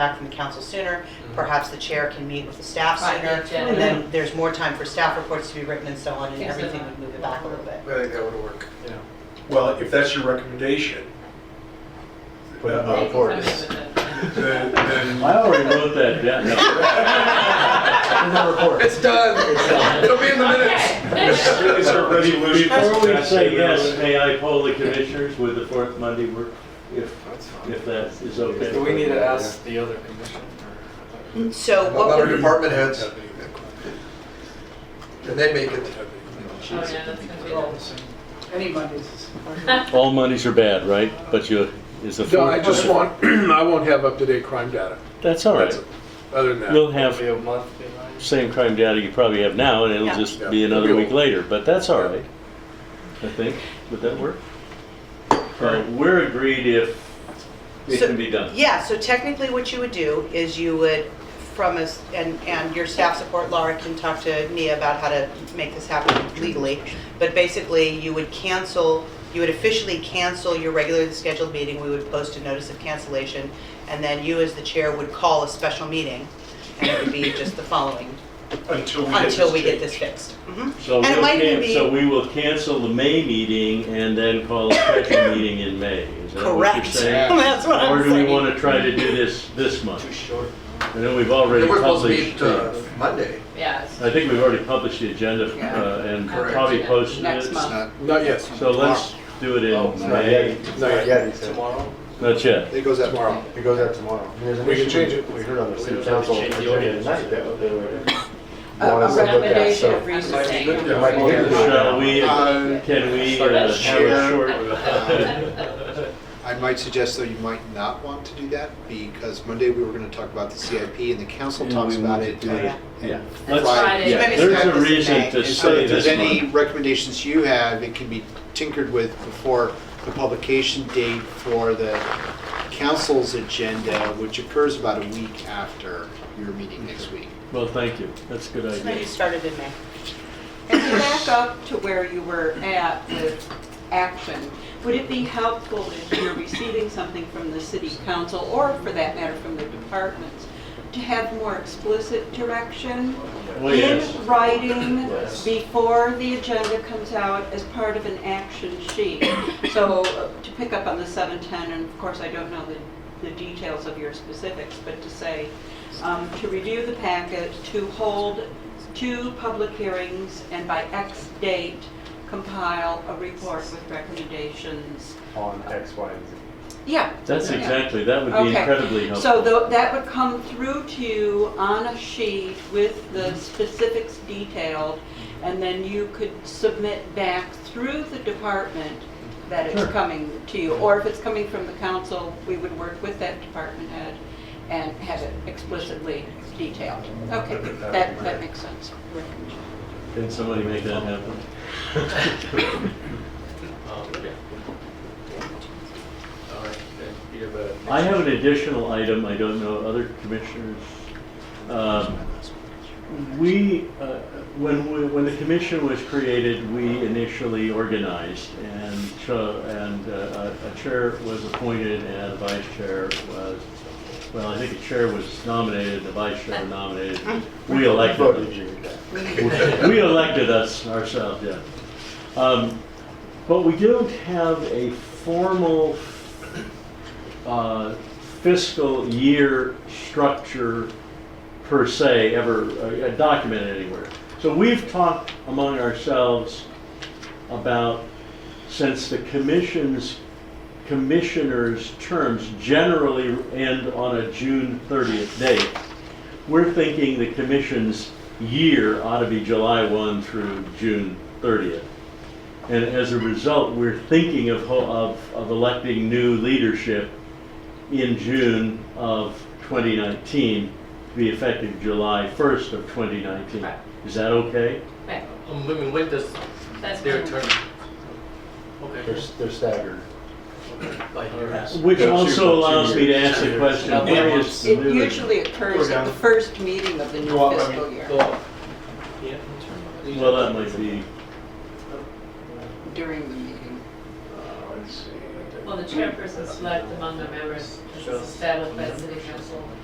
back from the council sooner. Perhaps the chair can meet with the staff Right, sooner. yeah, And then there's more time for staff reports to be written and so on, and Yeah, so everything that- would move it back a little bit. I think that would work, yeah. Well, if that's your recommendation, Put it on uh, the board. then, then I already wrote that down. It's done. It'll be in the minutes. it's a resolution. Before we say yes, may I poll the commissioners with the fourth Monday work, if, if that is okay? Do we need to ask the other commission? or- Mm, So What about what our would, department heads? Can they make it? Oh, yeah, that's gonna be all the same. Any Mondays. All Mondays are bad, right? But you, is the No, I fourth? just want, I won't have up-to-date crime data, That's all right. other than that. You'll have Be a month behind? same crime data you probably have now, and it'll Yeah. just Yeah. be another It'll be week later, but that's all right. I think, would that work? Uh, We're agreed if it So- can be done. yeah, so technically what you would do is you would, from us, and, and your staff support, Laura can talk to me about how to make this happen legally. But basically, you would cancel, you would officially cancel your regularly scheduled meeting. We would post a notice of cancellation. And then you, as the chair, would call a special meeting. And it would be just the following, Until we get this. until we get this changed. fixed. Mhm. So And it we'll might even can, be- so we will cancel the May meeting and then call a special meeting in May. Is that what you're Correct. saying? That's what Or I'm do we saying. want to try to do this this month? Too short. I know we've already They were supposed to published, meet uh, the- Monday. Yeah, it's- I think we've already published the agenda uh, and Correct. probably Yeah. posted Next it. month. Not yet, So let's do it Oh, in not May. not yet, Yeah, he said. Tomorrow? Not yet. It goes out Tomorrow. tomorrow. It goes out tomorrow. I mean, there's an We can issue change it. We heard on the We city don't have to council change the agenda ordinance. tonight that they were. A wanted a us to look at, recommendation so- of Might be reason. good to It might be avoid good it. to Shall we, Uh, can we Start uh, have that a uh, share. short? I might suggest though you might not want to do that because Monday we were going to talk about the CIP and the council And talks we about need to it. do and- it. Yeah. and Let's- Friday. Friday. yeah, Maybe There's start a this in May. reason to And And so say if this there's any month. recommendations you have, it can be tinkered with before the publication date for the council's agenda, which occurs about a week after your meeting next week. Well, thank you. That's a good Maybe idea. started in May. And to back up to where you were at with action, would it be helpful if you're receiving something from the city council, or for that matter, from the departments, to have more explicit direction Well, yes. in writing Yes. before the agenda comes out as part of an action sheet? So uh, to pick up on the 710, and of course, I don't know the, the details of your specifics, but to say, um, to review the packet, to hold two public hearings, and by X date compile a report with recommendations. On X, Y, and Z. Yeah. That's yeah. exactly, that would be Okay. incredibly helpful. So tho- that would come through to you on a sheet with the specifics detailed, and then you could submit back through the department that it's Sure. coming to you. Or if it's coming from the council, we would work with that department head and have it explicitly detailed. Okay, that, that makes sense. Can somebody make that happen? Um, yeah. All right, then you have a- I have an additional item, I don't know, other commissioners. Um, We, uh, when, we- when the commission was created, we initially organized and, cho- and uh, a a chair was appointed and a vice chair was, well, I think a chair was nominated, the vice chair nominated. We elected, Voted you. we elected us ourselves, yeah. Um, But we don't have a formal uh, fiscal year structure per se ever uh, documented anywhere. So we've talked among ourselves about, since the commission's, commissioners' terms generally end on a June 30th date, we're thinking the commission's year ought to be July 1 through June 30th. And as a result, we're thinking of, ho- of, of electing new leadership in June of 2019 to be effective July 1st of 2019. Right. Is that okay? right, Um, When when does that's their fine. turn? Okay. They're, they're staggered. By years. Which Yeah, two- also two allows me to years. ask the Two question, years. what Yeah. is the It new? usually occurs at the first meeting of the new Go up, I fiscal mean, year, go up. Yeah. Well, that might be, during the meeting. Well, the chairperson select among the members is established by the city council.